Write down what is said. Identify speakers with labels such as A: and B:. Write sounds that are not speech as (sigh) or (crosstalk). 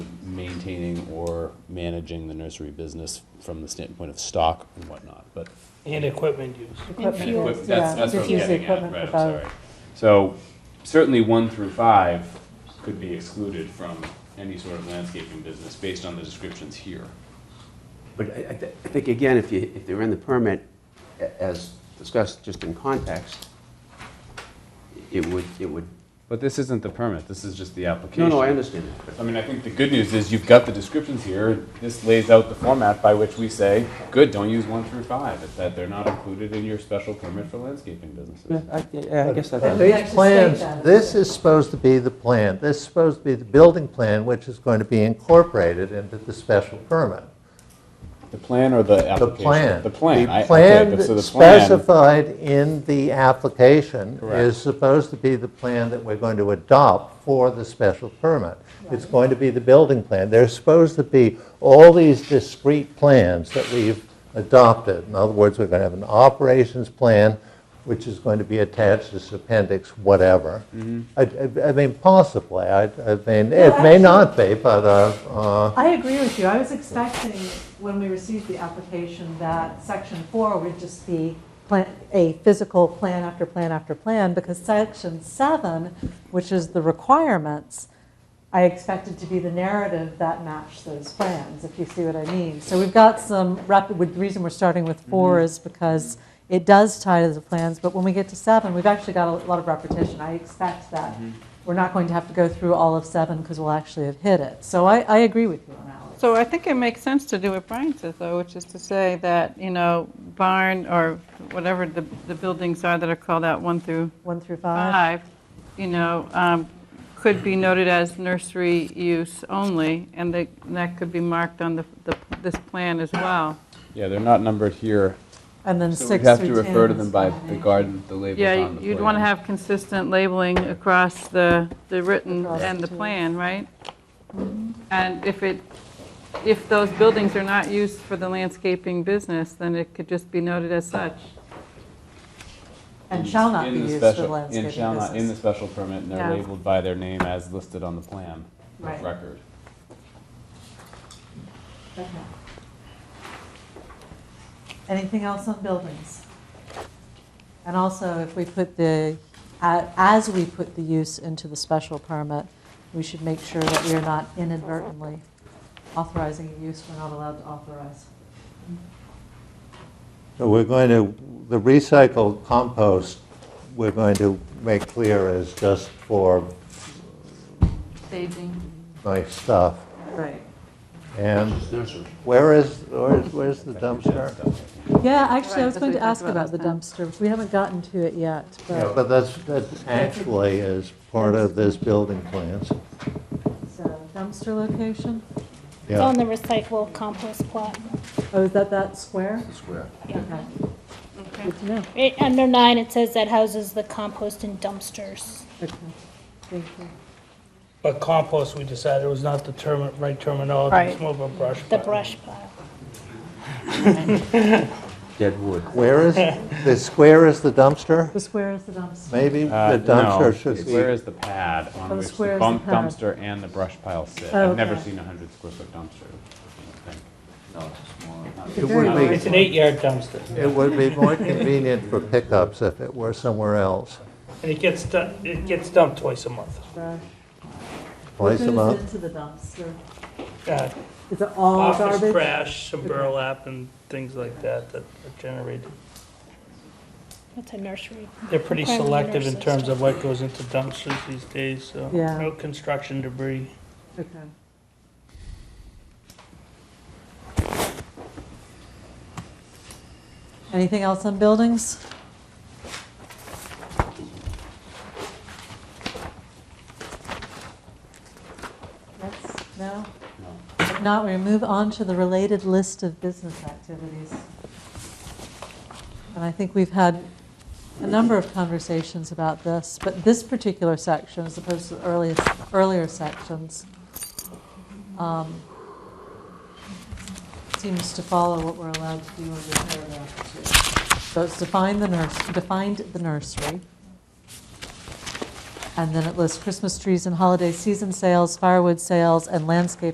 A: maintaining or managing the nursery business from the standpoint of stock and whatnot, but.
B: And equipment use.
A: and
C: Equipment, yeah.
A: equip- That's, that's what I'm
C: Just use the
A: getting at,
C: equipment
A: right, I'm
C: without-
A: sorry. So certainly one through five could be excluded from any sort of landscaping business based on the descriptions here.
D: But I, I thi- I think, again, if you, if they're in the permit, a- as discussed just in context, it would, it would,
A: But this isn't the permit, this is just the application.
D: no, no, I understand that.
A: I mean, I think the good news is you've got the descriptions here. This lays out the format by which we say, good, don't use one through five, It's that they're not included in your special permit for landscaping businesses.
D: but- Yeah, I, I guess
E: And
C: Like
D: that,
C: to
E: these
C: state that.
E: plans, this is supposed to be the plan, this is supposed to be the building plan, which is going to be incorporated into the special permit.
A: The plan or the
E: The
A: application?
E: plan.
A: The plan. I-
E: The
A: okay,
E: plan
A: but so the plan-
E: specified in the application is supposed to be the plan that we're going to adopt for the special permit. It's going to be the building plan. There's supposed to be all these discrete plans that we've adopted. In other words, we're going to have an operations plan, which is going to be attached as appendix whatever.
A: Mm-hmm.
E: I- I I mean, possibly, I I mean, it may
C: actually-
E: not be, but, uh, uh,
C: I agree with you. I was expecting, when we received the application, that section four would just be plan, a physical plan after plan after plan, because section seven, which is the requirements, I expected to be the narrative that matched those plans, if you see what I mean. So we've got some rapid, with- the reason we're starting with four
A: Mm-hmm.
C: is because it does tie to the plans, but when we get to seven, we've actually got a lot of repetition. I expect that
A: Mm-hmm.
C: we're not going to have to go through all of seven because we'll actually have hit it. So I, I agree with you on Alex.
F: So I think it makes sense to do what Brian says, though, which is to say that, you know, barn or whatever the, the buildings are that are called out one through
C: One through five?
F: five, you know, um, could be noted as nursery use only, and they- and that could be marked on the, the- this plan as well.
A: Yeah, they're not numbered here.
C: And then
A: So we'd
C: six
A: have
C: through
A: to
C: 10
A: refer to
C: is
A: them by
C: fine.
A: the garden, the labels
F: Yeah,
A: on the
F: you'd want to
A: plan.
F: have consistent labeling across the, the written
C: Across
F: and
C: the-
F: the
C: Mm-hmm.
F: plan, right? And if it, if those buildings are not used for the landscaping business, then it could just be noted as such.
C: And shall not
A: In
C: be
A: the
C: used
A: special-
C: for landscaping
A: in shall not- In the
C: business.
A: special permit, and they're
F: Yeah.
A: labeled by their name as listed on the plan of
C: Right.
A: record.
C: Okay. Anything else on buildings? And also, if we put the, a- as we put the use into the special permit, we should make sure that we are not inadvertently authorizing a use we're not allowed to authorize.
E: So we're going to, the recycled compost, we're going to make clear is just for
F: Staging.
E: nice stuff.
C: Right.
E: And
D: nursery.
E: where is, where is- where's the dumpster?
C: Yeah, actually, I was
F: that's
C: going to
F: what we
C: ask
F: talked
C: about
F: about
C: the
F: last
C: dumpster. We haven't gotten to it yet,
E: Yeah,
C: but,
E: But that's, that actually is part of this building plans.
C: so dumpster location?
G: It's on
E: Yeah.
G: the recycle compost plot.
C: Oh, is that that square?
D: Square.
C: Okay, good to know.
G: It- Under nine, it says that houses the compost and dumpsters.
C: Okay, thank you.
B: But compost, we decided was not the term, right terminology. It's
G: Right.
B: more of a brush.
G: The
B: pile.
G: brush pile.
D: Dead wood.
E: Where
G: (laughs)
E: is, the square is the dumpster?
C: The square is the dumpster.
E: Maybe
A: Uh,
E: the
A: no,
E: dumpster should
A: Where
E: be,
A: is the pad
C: Oh,
A: on which the
C: square is the
A: bump
C: pad.
A: dumpster and the brush pile sit?
C: Oh,
A: I've never
C: okay.
A: seen a hundred square foot dumpster, I don't think.
D: No, it's smaller.
E: it would
B: It's an
E: be,
B: eight-yard dumpster,
E: it would be more convenient for pickups if it were somewhere else,
B: and it gets, du- it gets dumped twice a month.
C: Trash. What
E: twice a
C: goes
E: month.
C: into the dumpster?
B: Uh,
C: Is it all
B: Office
C: garbage?
B: trash, some burlap and things like that that are generated.
G: That's a nursery.
B: They're pretty
G: Requirement
B: selective in
G: nurses.
B: terms of what goes into dumpsters these days, so.
C: Yeah.
B: No construction debris.
C: Okay. Anything else on buildings? Yes, no? If not, we move on to the related list of business activities. And I think we've had a number of conversations about this, but this particular section, as opposed to the earliest, earlier sections, um, seems to follow what we're allowed to do under paragraph two. So it's define the nurse, defined the nursery. And then it lists Christmas trees and holiday season sales, firewood sales, and landscape